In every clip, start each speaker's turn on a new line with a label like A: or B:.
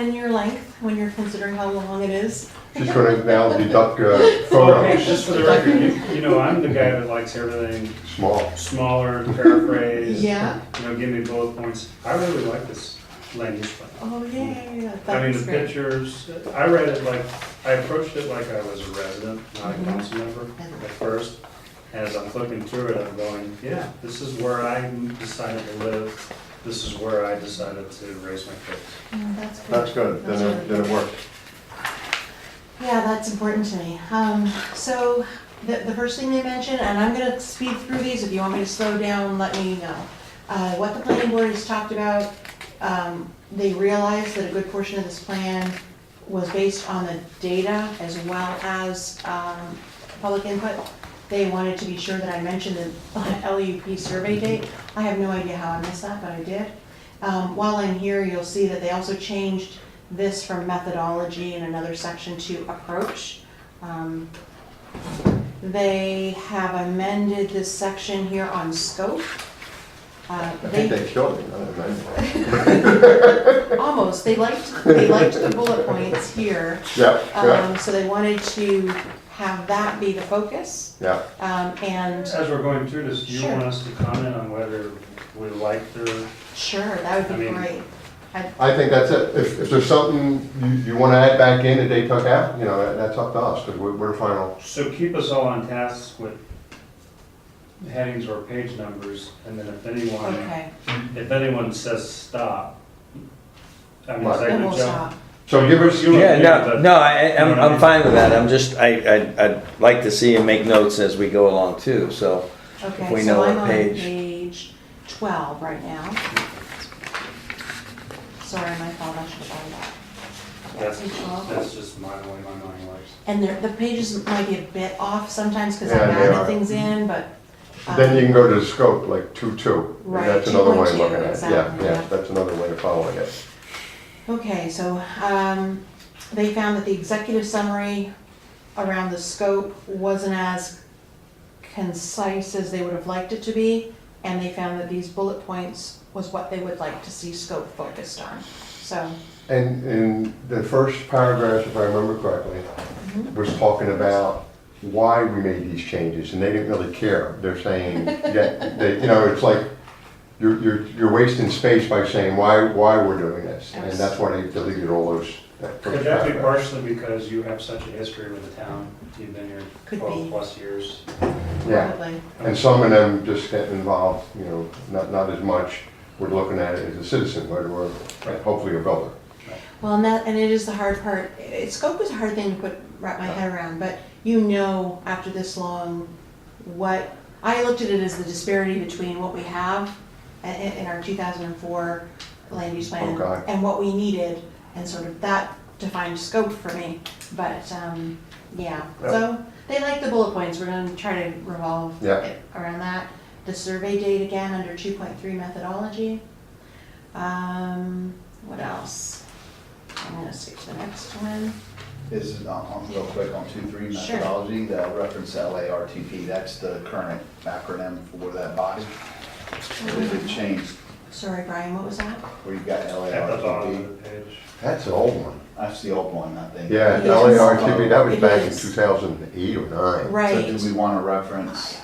A: in your length when you're considering how long it is.
B: She's gonna now deduct uh,
C: Okay,
B: photos,
C: just for the record, you, you know, I'm the guy that likes everything
B: small.
C: smaller, paraphrase.
A: Yeah.
C: You know, give me bullet points. I really like this land use plan.
A: Oh, yeah, yeah, yeah,
C: I
A: that
C: mean,
A: is
C: the
A: great.
C: pictures, I read it like, I approached it like I was a resident, not a
A: Mhm.
C: council member at first. As I'm flipping through it, I'm going, yeah, this is where I decided to live. This is where I decided to raise my kids.
A: Mm, That's
B: That's
A: good.
B: good, then it, then it worked.
A: Yeah, that's important to me. Um, so the, the first thing they mentioned, and I'm gonna speed through these, if you want me to slow down, let me know. Uh, what the planning board has talked about, um, they realized that a good portion of this plan was based on the data as well as, um, public input. They wanted to be sure that I mentioned the LUP survey date. I have no idea how I missed that, but I did. Um, while I'm here, you'll see that they also changed this from methodology in another section to approach. Um, They have amended this section here on scope. Uh,
B: I think they killed it, I don't know.
A: Almost, they liked, they liked the bullet points here,
B: Yeah, yeah,
A: um, so they wanted to have that be the focus,
B: yeah.
A: um, and
C: As we're going through this, do you
A: Sure.
C: want us to comment on whether we like their
A: sure, that would be
C: I mean-
A: great.
B: I think that's it. If, if there's something you, you wanna add back in that they took out, you know, that- that's up to us, because we're, we're final.
C: So keep us all on task with headings or page numbers, and then if anyone,
A: Okay,
C: if anyone says stop, I mean,
B: Right.
C: is that
A: then
C: gonna
A: we'll
C: jump?
A: stop.
B: So give us,
C: You don't
D: Yeah,
C: agree
D: no,
C: with
D: no,
C: that?
D: I,
C: You know
D: I'm,
C: what I
D: I'm
C: mean?
D: fine with that, I'm just, I, I, I'd like to see him make notes as we go along too, so.
A: Okay,
D: we
A: so
D: know what
A: I'm on
D: page.
A: page twelve right now. Sorry, my fault, I should have done that.
C: That's,
A: Page 12.
C: that's just my way my mind works.
A: And there, the pages might be a bit off sometimes because
B: Yeah,
A: I've
B: they
A: added
B: are.
A: things in, but. um,
B: then you can go to the scope, like two-two. and
A: Right,
B: That's another way of
A: 2.2,
B: looking at it. Yeah,
A: exactly,
B: yeah,
A: yeah.
B: that's another way of following it.
A: Okay, so, um, they found that the executive summary around the scope wasn't as concise as they would have liked it to be, and they found that these bullet points was what they would like to see scope focused on, so.
B: And in the first paragraph, if I remember correctly,
A: mhm.
B: was talking about why we made these changes, and they didn't really care. They're saying, that they, you know, it's like, you're, you're, you're wasting space by saying why, why we're doing this. And that's why they deleted all those. that first
C: Could that be
B: paragraph.
C: partially because you have such a history with the town? You've been here
A: Could be.
C: twelve plus years.
B: Yeah,
A: Probably.
B: and some of them just get involved, you know, not, not as much. We're looking at it as a citizen, but we're hopefully a builder.
A: Well, and that, and it is the hard part, it, scope is a hard thing to put, wrap my head around, but you know after this long, what, I looked at it as the disparity between what we have i- i- in our two thousand and four land use plan
B: Okay.
A: and what we needed, and sort of that defined scope for me, but, um, yeah,
B: Yeah.
A: so, they like the bullet points, we're gonna try to revolve
B: Yeah.
A: it around that. The survey date again, under two point three methodology. Um, what else? I'm gonna skip to the next one.
E: is, um, um, real quick, on two, three
A: Sure.
E: methodology, the reference LARTP, that's the current acronym for that body.
A: Mm-hmm.
E: It had changed,
A: Sorry, Brian, what was that?
E: where you've got
C: At the bottom
E: LARTP,
C: of the page.
B: That's an old one.
E: that's the old one, I think.
B: Yeah,
A: It is.
B: LARTP, that was
A: It
B: back in
A: is.
B: two thousand and eight or nine.
E: So
A: Right.
E: do we want to reference,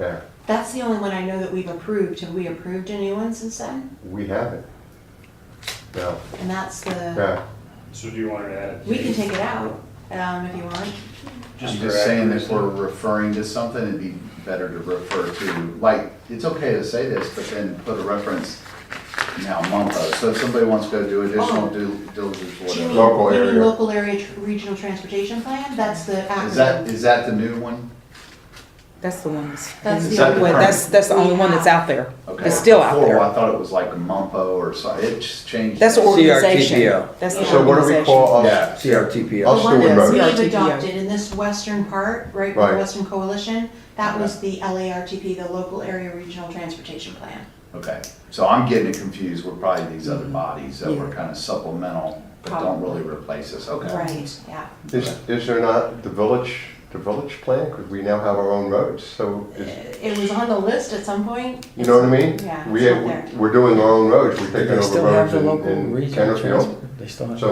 B: Yeah,
A: That's the only one I know that we've approved. Have we approved a new one since then?
B: we have it. Yeah,
A: And that's the,
B: yeah.
C: So do you want to add?
A: we can take it out, um, if you want.
E: I'm
C: for
E: just saying that
C: accuracy.
E: we're referring to something, it'd be better to refer to, like, it's okay to say this, but then put a reference now, MUMPO. So if somebody wants to go do
A: Oh.
E: additional due diligence,
A: Do you mean-
E: whatever.
B: Local
A: You mean
B: area.
A: local area tr- regional transportation plan? That's the
E: Is that,
A: acronym.
E: is that the new one?
F: That's the one that's.
A: That's
E: the only one.
F: That's, that's the only one that's out there.
E: Okay.
F: It's still out
E: Before,
F: there.
E: I thought it was like MUMPO or something, it just changed.
F: That's the organization.
D: CRTPO.
F: That's the
B: So what do we
F: organization.
B: call
E: Yeah.
B: us?
A: The
B: Us
D: CRTPO.
B: doing
A: Oh, one that
B: roads.
A: we've
F: CRTPO.
A: adopted in this western part, right, by the
B: Right.
A: Western Coalition, that was the LARTP, the Local Area Regional Transportation Plan.
E: Okay, so I'm getting it confused with probably these other bodies that were
F: Yeah.
E: kind of supplemental, but don't really replace us, okay?
A: Right, yeah.
B: Is, is there not the village, the village plan, because we now have our own roads, so,
A: Uh,
B: is-
A: It was on the list at some point.
B: you know what I mean?
A: Yeah,
B: We,
A: it's not there.
B: we're doing our own roads, we're taking
D: They
B: over
D: still have
B: roads
D: the
B: in,
D: local
B: in
D: regional
B: Centerfield.
D: transport. They still have.
B: So